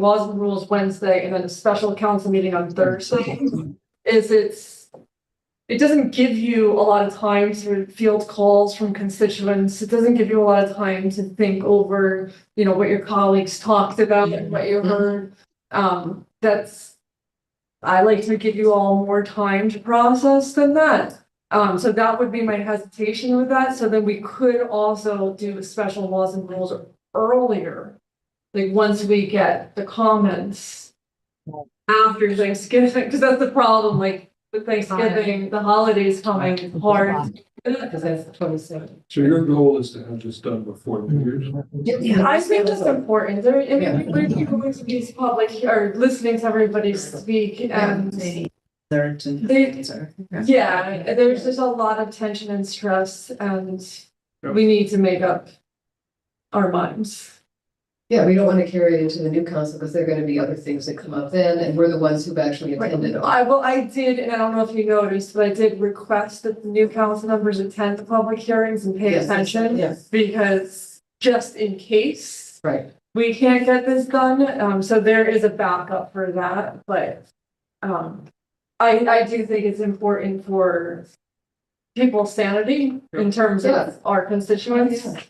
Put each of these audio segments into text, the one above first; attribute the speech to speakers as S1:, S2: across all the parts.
S1: laws and rules Wednesday and then a special council meeting on Thursday is it's, it doesn't give you a lot of time to field calls from constituents. It doesn't give you a lot of time to think over, you know, what your colleagues talked about and what you heard. Um, that's, I like to give you all more time to process than that. Um, so that would be my hesitation with that. So then we could also do special laws and rules earlier like once we get the comments after Thanksgiving, because that's the problem, like with Thanksgiving, the holidays coming, it's hard.
S2: Because that's the twenty-seventh.
S3: So your goal is to have this done before New Year's?
S1: I think that's important, there, I mean, we're going to these public, he- or listening to everybody speak and
S4: Third and.
S1: They- yeah, there's just a lot of tension and stress and we need to make up our minds.
S2: Yeah, we don't want to carry it into the new council because there are going to be other things that come up then, and we're the ones who've actually attended. all.
S1: I, well, I did, and I don't know if you noticed, but I did request that the new council members attend the public hearings and pay
S2: Yes,
S1: attention.
S2: Yes,
S1: because just in case
S2: right.
S1: we can't get this done, um, so there is a backup for that, but um, I, I do think it's important for people's sanity in terms
S2: Yeah.
S1: of our constituents
S2: Yeah.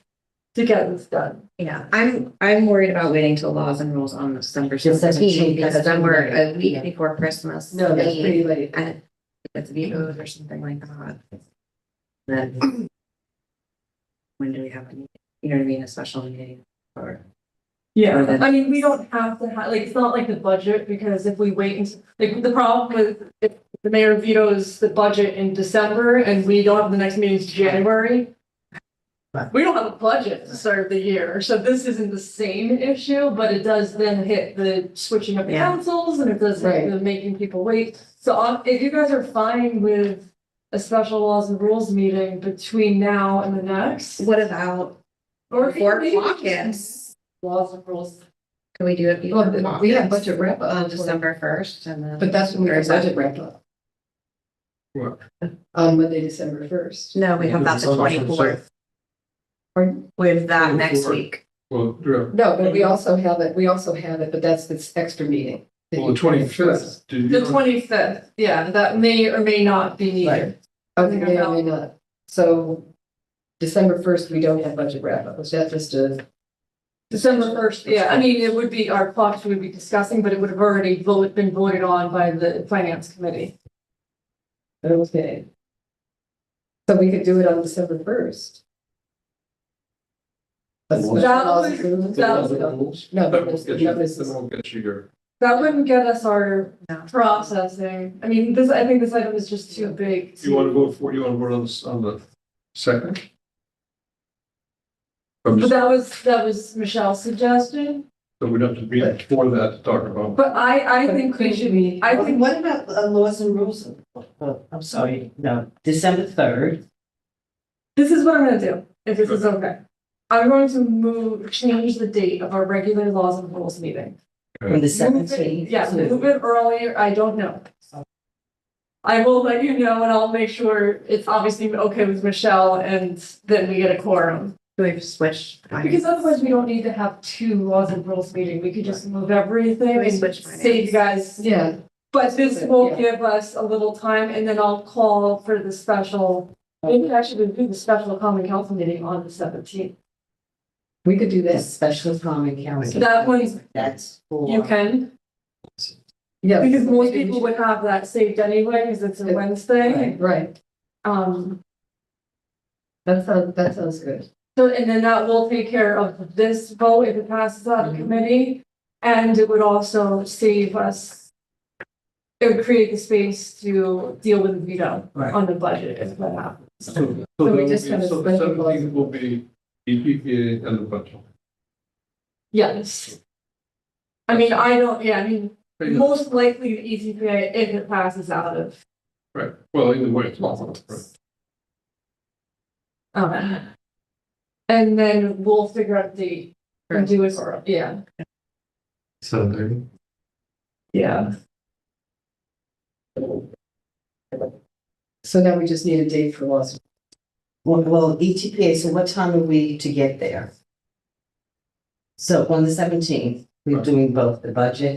S1: to get this done.
S5: Yeah, I'm, I'm worried about waiting till laws and rules on December
S4: Yes, that's true,
S5: seventeenth, because
S4: that's
S5: then we're a
S4: pretty late, yeah.
S5: week before Christmas.
S2: No, that's
S5: we-
S2: pretty late.
S5: And it's vetoed or something like that. Then. When do we have, a meeting? you know what I mean, a special meeting? Or, Or
S1: Yeah,
S5: that-
S1: I mean, we don't have to have, like, it's not like the budget, because if we wait, and- like, the problem with if the mayor vetoes the budget in December and we don't have the next meeting to January. We don't have a budget to start the year, so this isn't the same issue, but it does then hit the switching of the
S5: Yeah.
S1: councils and it does hit
S2: Right.
S1: the making people wait. So uh, if you guys are fine with a special laws and rules meeting between now and the next.
S5: what about
S1: or
S5: before
S1: maybe
S5: caucus?
S1: Laws and rules.
S5: Can we do it before
S2: Well, we have
S5: caucus?
S2: budget wrap up
S5: On
S2: on
S5: December
S2: December,
S5: first and then.
S2: but that's when we
S5: Or
S2: have
S5: is that-
S2: budget wrap up
S3: What?
S2: on Monday, December first.
S5: No, we have that the twenty-fourth.
S2: Pardon?
S5: We have that next
S3: 24th.
S5: week.
S3: Well, yeah,
S2: No, but we also have it, we also have it, but that's this extra meeting.
S3: well, the twenty-fifth.
S1: The twenty-fifth, yeah, that may or may not be needed.
S2: Okay, may or may not. So December first, we don't have budget wrap up. Was that just a?
S1: December first, yeah, I mean, it would be our clocks we would be discussing, but it would have already voted, been voted on by the finance committee.
S2: Okay. So we could do it on December first.
S3: That was-
S1: that
S2: No,
S3: That
S2: but
S3: will
S2: this,
S3: get
S2: no,
S3: you,
S2: this
S3: that
S2: is,
S3: will get you your,
S1: That wouldn't get us our
S5: No.
S1: processing. I mean, this, I think this item is just too big.
S3: you want to vote for, you want to vote on this, on the second? I'm
S1: But
S3: just,
S1: that was, that was Michelle's suggestion,
S3: so we'd have to be for that to talk about.
S1: but I, I think we should,
S2: be.
S1: I
S4: What
S1: think,
S4: what about uh, laws and rules? Oh, I'm sorry, no, December third.
S1: this is what I'm gonna do, if this is okay. I'm going to move, change the date of our regular laws and rules meeting.
S4: From the
S1: Move it- Yeah, move it earlier, I don't know. I will let you know and I'll make sure it's obviously okay with Michelle and then we get a quorum.
S5: We've switched.
S1: Because otherwise we don't need to have two laws and rules meeting, we could just move everything
S5: We
S1: and
S5: switch
S1: save you guys.
S2: yeah,
S1: But this will give us a little time and then I'll call for the special, maybe I should do the special common council meeting on the seventeenth.
S2: we could do this.
S4: Special common council.
S1: That one's-
S4: That's for.
S1: You can,
S2: Yeah.
S1: because most people would have that saved anyway, because it's a Wednesday.
S2: Right, right.
S1: Um,
S2: That sounds, that sounds good.
S1: So, and then that will take care of this vote if it passes out of
S4: Mhm.
S1: committee, and it would also save us. It would create the space to deal with the veto
S4: Right.
S1: on the budget if that happens.
S3: So
S2: we
S3: the
S2: just kinda split it.
S3: seventeenth will be E EPA and the budget.
S1: Yes. I mean, I don't, yeah, I mean, most likely the E ECPA if it passes out of.
S3: Right, well, either way. it's not- right.
S1: Um. And then we'll figure out the, and do it for, yeah,
S6: Seven thirty?
S1: yeah.
S2: So now we just need a date for laws. E
S4: Well, well, ETPA, so what time are we to get there? So on the seventeenth,
S2: We're doing both the budget